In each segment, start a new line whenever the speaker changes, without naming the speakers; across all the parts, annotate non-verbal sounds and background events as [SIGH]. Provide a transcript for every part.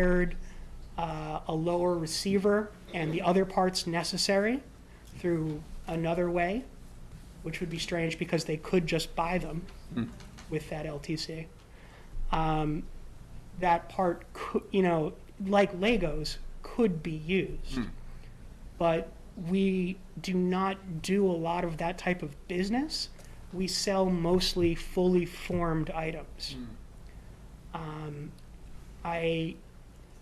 hired uh, a lower receiver and the other parts necessary through another way, which would be strange because they could just buy them with that LTC. Um, That part, cou- you know, like Legos, could be used. But we do not do a lot of that type of business. We sell mostly fully formed items. Um, I,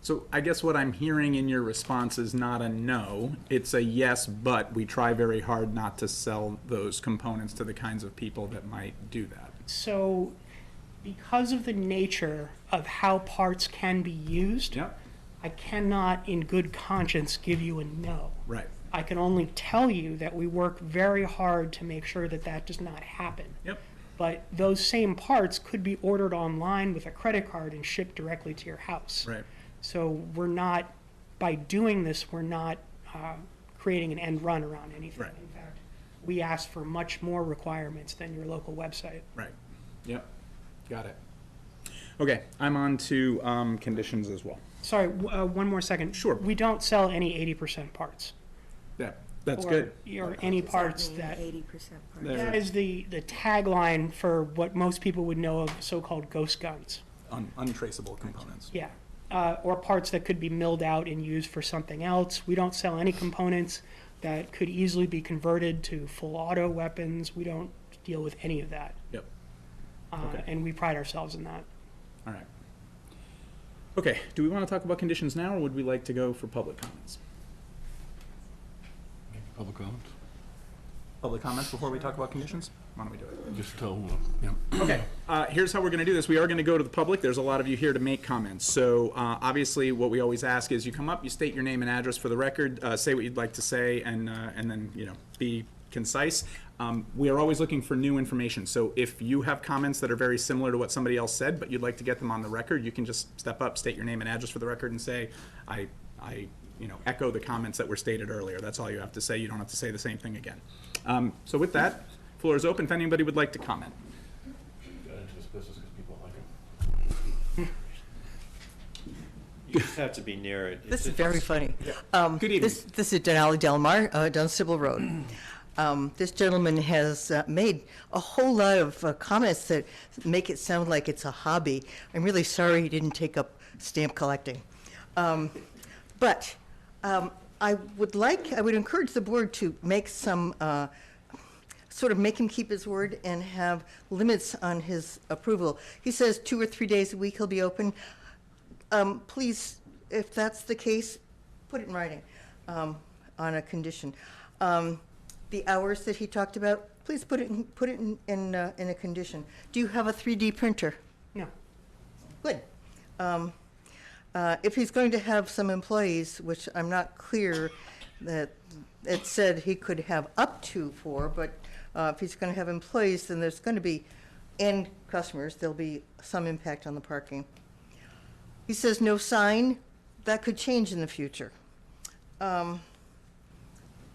So I guess what I'm hearing in your response is not a no, it's a yes, but we try very hard not to sell those components to the kinds of people that might do that.
so because of the nature of how parts can be used,
Yep.
I cannot in good conscience give you a no.
Right,
I can only tell you that we work very hard to make sure that that does not happen.
yep,
But those same parts could be ordered online with a credit card and shipped directly to your house.
right,
So we're not, by doing this, we're not uh, creating an end run around anything.
Right.
In fact, we ask for much more requirements than your local website.
right, yep, got it. Okay, I'm on to, um, conditions as well.
Sorry, w- uh, one more second.
Sure.
We don't sell any 80% parts.
Yeah, that's
or-
good.
Or any parts that.
Eighty percent
There.
That is the, the tagline for what most people would know of so-called ghost guns.
Un- untraceable components.
Yeah. Uh, or parts that could be milled out and used for something else. We don't sell any components that could easily be converted to full auto weapons. We don't deal with any of that.
Yep,
Uh,
Okay.
And we pride ourselves in that.
all right. Okay, do we wanna talk about conditions now, or would we like to go for public comments?
Public comment?
Public comments before we talk about conditions? Why don't we do it?
Just tell, yeah.
Okay, uh, here's how we're going to do this. We are going to go to the public. There's a lot of you here to make comments. So uh, obviously, what we always ask is you come up, you state your name and address for the record, uh, say what you'd like to say, and, uh, and then, you know, be concise. Um, We are always looking for new information. So if you have comments that are very similar to what somebody else said, but you'd like to get them on the record, you can just step up, state your name and address for the record, and say, I, I, you know, echo the comments that were stated earlier. That's all you have to say. You don't have to say the same thing again. Um, So with that, floor is open if anybody would like to comment.
Got into this business because people like it.
You just have to be near it.
This
It's
is
a-
very funny. Um,
Good evening.
This, this is Denali Delmar, uh, down Sybil Road. Um, This gentleman has uh, made a whole lot of uh, comments that make it sound like it's a hobby. I'm really sorry he didn't take up stamp collecting. Um, But um, I would like, I would encourage the board to make some, uh, sort of make him keep his word and have limits on his approval. He says two or three days a week he'll be open. Um, please, if that's the case, put it in writing, um, on a condition. Um, the hours that he talked about, please put it in, put it in, in, uh, in a condition. Do you have a 3D printer?
No.
Good. Um, uh, If he's going to have some employees, which I'm not clear that, it said he could have up to four, but uh, if he's going to have employees, then there's going to be, and customers, there'll be some impact on the parking. He says no sign, that could change in the future. Um,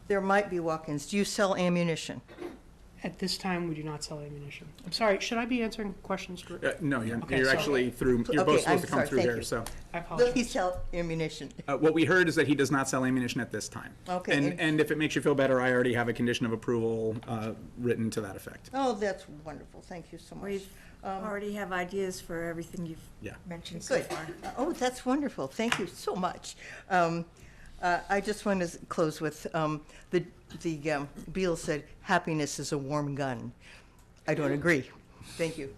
There might be walk-ins. Do you sell ammunition?
At this time, we do not sell ammunition. I'm sorry, should I be answering questions? dir-
Uh, No, you're,
Okay,
you're
sorry.
actually through, you're
Okay,
both
I'm
supposed to come
sorry,
through
thank
here,
you.
so.
I
Will he
apologize.
sell ammunition?
Uh, What we heard is that he does not sell ammunition at this time.
Okay,
And,
and-
and if it makes you feel better, I already have a condition of approval uh, written to that effect.
Oh, that's wonderful. Thank you so much.
We
um,
already have ideas for everything you've
Yeah.
mentioned so
Good.
far.
[LAUGHS] Oh, that's wonderful. Thank you so much. Um, uh, I just want to close with, um, the, the, um, Beal said, happiness is a warm gun. I don't agree. Thank you.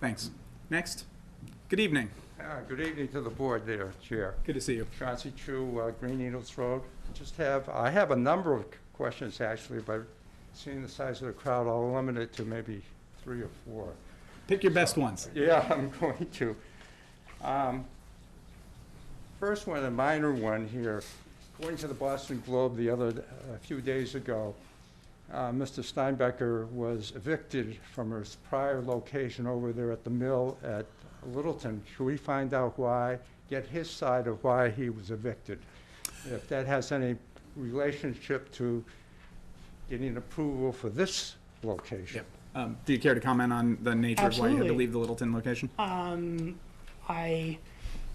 Thanks. Next. Good evening.
Uh, Good evening to the board there, Chair.
Good to see you.
Chauncey Chu, uh, Green Needles Road. Just have, I have a number of questions actually, but seeing the size of the crowd, I'll limit it to maybe three or four.
Pick your best ones.
[LAUGHS] Yeah, I'm going to. Um, First one, a minor one here. According to the Boston Globe the other, a few days ago, uh, Mr. Steinbecker was evicted from his prior location over there at the mill at Littleton. Should we find out why, get his side of why he was evicted? If that has any relationship to getting approval for this location?
Um, Do you care to comment on the nature of why you had to
Absolutely.
leave the Littleton location?
Um, I